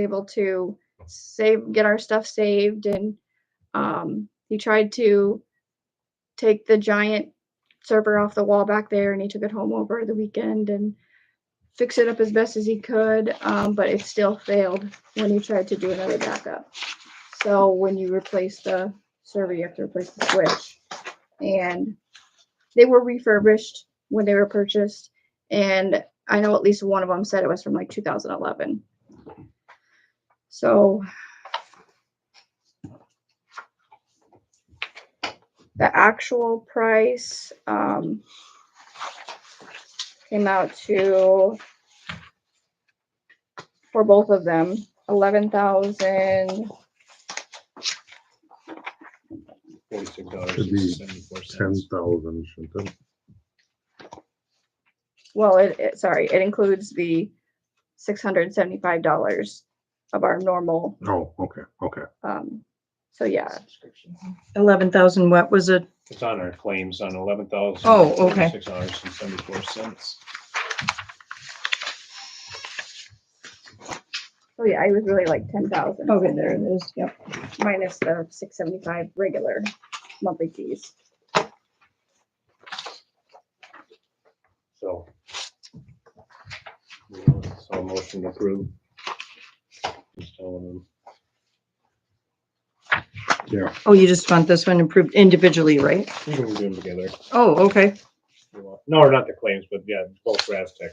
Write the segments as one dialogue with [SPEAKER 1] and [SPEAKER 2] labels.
[SPEAKER 1] able to save, get our stuff saved and um, he tried to take the giant server off the wall back there and he took it home over the weekend and fix it up as best as he could, um, but it still failed when he tried to do another backup. So when you replace the server, you have to replace the switch. And they were refurbished when they were purchased. And I know at least one of them said it was from like 2011. So the actual price um, came out to for both of them eleven thousand
[SPEAKER 2] Forty-six
[SPEAKER 3] Should be
[SPEAKER 2] dollars, seventy-four
[SPEAKER 3] ten
[SPEAKER 2] cents.
[SPEAKER 3] thousand, shouldn't it?
[SPEAKER 1] Well, it, it, sorry, it includes the six hundred and seventy-five dollars of our normal,
[SPEAKER 3] Oh, okay, okay.
[SPEAKER 1] um, so yeah,
[SPEAKER 4] Eleven thousand, what was it?
[SPEAKER 2] It's on our claims on eleven thousand.
[SPEAKER 4] Oh, okay.
[SPEAKER 2] Six dollars and seventy-four cents.
[SPEAKER 1] so Oh, yeah, I was really like ten thousand.
[SPEAKER 4] Okay, Oh, there it is, yep.
[SPEAKER 1] Minus the six seventy-five regular monthly fees.
[SPEAKER 2] So. Yeah, So motion approved. Just telling them.
[SPEAKER 3] Yeah,
[SPEAKER 4] Oh, you just want this one improved individually, right?
[SPEAKER 2] We can do them together.
[SPEAKER 4] Oh, okay.
[SPEAKER 2] if you want. No, or not the claims, but yeah, both for Aztec,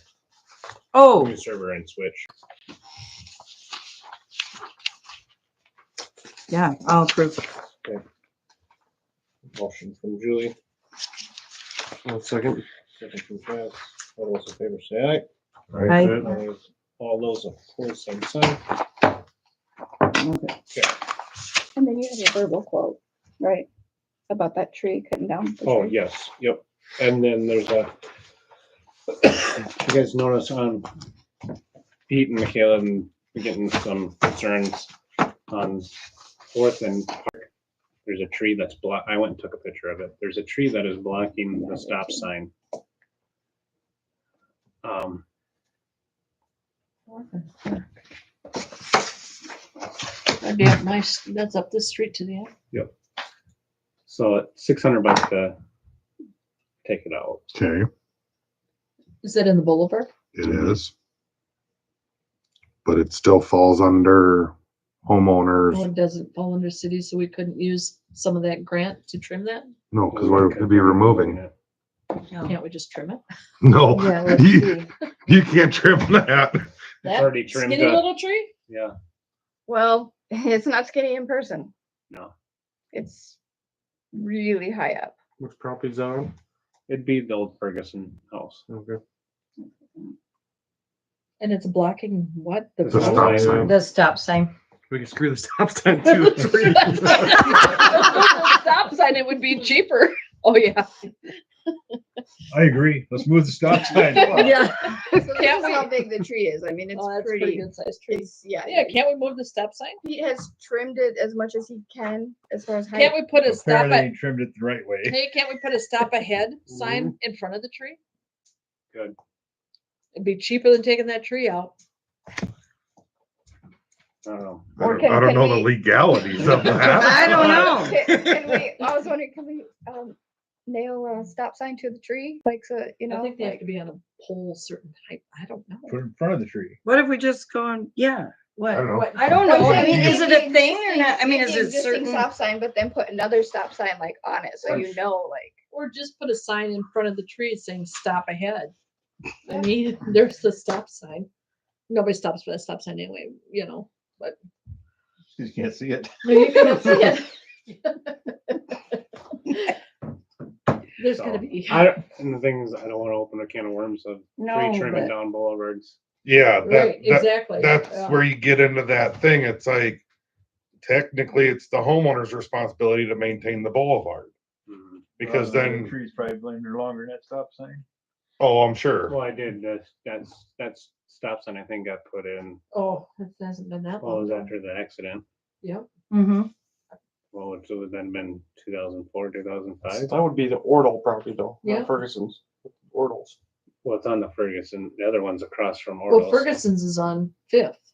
[SPEAKER 4] Oh,
[SPEAKER 2] new server and switch.
[SPEAKER 4] yeah, I'll approve.
[SPEAKER 2] Motion from Julie,
[SPEAKER 5] One second.
[SPEAKER 2] second from Chaz. All those in favor say aye.
[SPEAKER 4] Aye.
[SPEAKER 2] All those- All those opposed, same sign.
[SPEAKER 4] Okay.
[SPEAKER 1] And then you have a verbal quote, right, about that tree cutting down. the
[SPEAKER 2] Oh,
[SPEAKER 1] tree.
[SPEAKER 2] yes, yep. And then there's a. You guys notice on Pete and Michaela, and we're getting some concerns on Fourth and Park. There's a tree that's block, I went and took a picture of it. There's a tree that is blocking the stop sign. Um,
[SPEAKER 6] That'd be up my, s- that's up the street to the,
[SPEAKER 2] so it's six hundred bucks to take it out.
[SPEAKER 3] okay,
[SPEAKER 6] is that in the boulevard?
[SPEAKER 3] it is. But it still falls under
[SPEAKER 6] Oh,
[SPEAKER 4] Um,
[SPEAKER 3] homeowners,
[SPEAKER 6] it doesn't fall under city, so we couldn't use some of that grant to trim that?
[SPEAKER 3] no, because we're gonna be removing.
[SPEAKER 2] it.
[SPEAKER 6] Can't we just trim it?
[SPEAKER 3] No,
[SPEAKER 4] Yeah, let's
[SPEAKER 3] you,
[SPEAKER 4] see.
[SPEAKER 3] you can't trim that.
[SPEAKER 6] That
[SPEAKER 2] already trimmed
[SPEAKER 6] Skinny
[SPEAKER 2] up.
[SPEAKER 6] little tree?
[SPEAKER 2] Yeah,
[SPEAKER 1] Well, it's not skinny in person.
[SPEAKER 2] No.
[SPEAKER 1] It's really high up.
[SPEAKER 5] Which properties are on?
[SPEAKER 2] it'd be the old Ferguson house.
[SPEAKER 5] Okay.
[SPEAKER 6] And it's blocking what? The
[SPEAKER 3] The
[SPEAKER 6] road?
[SPEAKER 3] stop sign.
[SPEAKER 4] The stop sign.
[SPEAKER 5] We can screw the stop sign too.
[SPEAKER 6] Stop sign, it would be cheaper. Oh, yeah.
[SPEAKER 7] I agree. Let's move the stop sign.
[SPEAKER 4] Yeah.
[SPEAKER 1] So this
[SPEAKER 6] Can't
[SPEAKER 1] is how
[SPEAKER 6] we-
[SPEAKER 1] big the tree is. I mean, it's
[SPEAKER 6] Oh, that's a pretty
[SPEAKER 1] pretty,
[SPEAKER 6] good sized tree.
[SPEAKER 1] it's, yeah.
[SPEAKER 6] Yeah, can't we move the stop sign?
[SPEAKER 1] He has trimmed it as much as he can, as far as height.
[SPEAKER 6] Can't we put a stop
[SPEAKER 7] Apparently
[SPEAKER 6] at,
[SPEAKER 7] he trimmed it the right way.
[SPEAKER 6] hey, can't we put a stop ahead sign in front of the tree?
[SPEAKER 2] Good.
[SPEAKER 6] It'd be cheaper than taking that tree out.
[SPEAKER 2] I don't know.
[SPEAKER 3] I
[SPEAKER 1] Or
[SPEAKER 3] don't-
[SPEAKER 1] can-
[SPEAKER 3] I don't
[SPEAKER 1] can
[SPEAKER 3] know the
[SPEAKER 1] we-
[SPEAKER 3] legalities of that.
[SPEAKER 4] I don't know.
[SPEAKER 1] Can can we, I was wondering, can we, um, nail a stop sign to the tree, like, so, you
[SPEAKER 6] I
[SPEAKER 1] know?
[SPEAKER 6] think they have
[SPEAKER 1] like-
[SPEAKER 6] to be on a pole certain height. I don't know.
[SPEAKER 7] Put it in front of the tree.
[SPEAKER 4] What if we just go on, yeah,
[SPEAKER 3] I
[SPEAKER 4] what?
[SPEAKER 3] don't know.
[SPEAKER 4] I don't
[SPEAKER 1] I'm
[SPEAKER 4] know. I
[SPEAKER 1] saying
[SPEAKER 4] mean,
[SPEAKER 1] take
[SPEAKER 4] is it
[SPEAKER 1] the
[SPEAKER 4] a thing or
[SPEAKER 1] existing-
[SPEAKER 4] not? I mean,
[SPEAKER 1] take
[SPEAKER 4] is
[SPEAKER 1] the
[SPEAKER 4] it
[SPEAKER 1] existing
[SPEAKER 4] certain?
[SPEAKER 1] Stop sign, but then put another stop sign like on it, so you know, like,
[SPEAKER 6] Or just put a sign in front of the tree saying stop ahead. I mean, there's the stop sign. Nobody stops for that stop sign anyway, you know.
[SPEAKER 7] You can't see it.
[SPEAKER 6] You can see it. There's gonna
[SPEAKER 2] So,
[SPEAKER 6] be.
[SPEAKER 2] I, don't- and the thing is, I don't wanna open a can of worms of
[SPEAKER 6] No,
[SPEAKER 2] tree trimming
[SPEAKER 6] but-
[SPEAKER 2] down boulevards.
[SPEAKER 3] Yeah,
[SPEAKER 6] Right, exactly.
[SPEAKER 3] that's
[SPEAKER 6] yeah.
[SPEAKER 3] where you get into that thing. It's like technically it's the homeowner's responsibility to maintain the boulevard.
[SPEAKER 2] Mm.
[SPEAKER 3] Because
[SPEAKER 7] Well, the
[SPEAKER 3] then,
[SPEAKER 7] Trees probably linger longer than that eh? stop sign.
[SPEAKER 3] oh, I'm sure.
[SPEAKER 2] Well, I did, that's, that's, that's stop sign I think got put in,
[SPEAKER 6] Oh, it hasn't been that
[SPEAKER 2] well, it was
[SPEAKER 6] long.
[SPEAKER 2] after the accident.
[SPEAKER 6] Yep.
[SPEAKER 4] Mhm.
[SPEAKER 2] Well, it would then been two thousand four, two thousand five.
[SPEAKER 5] That would be the Ordle property though,
[SPEAKER 6] Yeah.
[SPEAKER 5] not Ferguson's, Ordle's.
[SPEAKER 2] Well, it's on the Ferguson, the other one's across from
[SPEAKER 6] Well,
[SPEAKER 2] Ordos.
[SPEAKER 6] Ferguson's is on Fifth.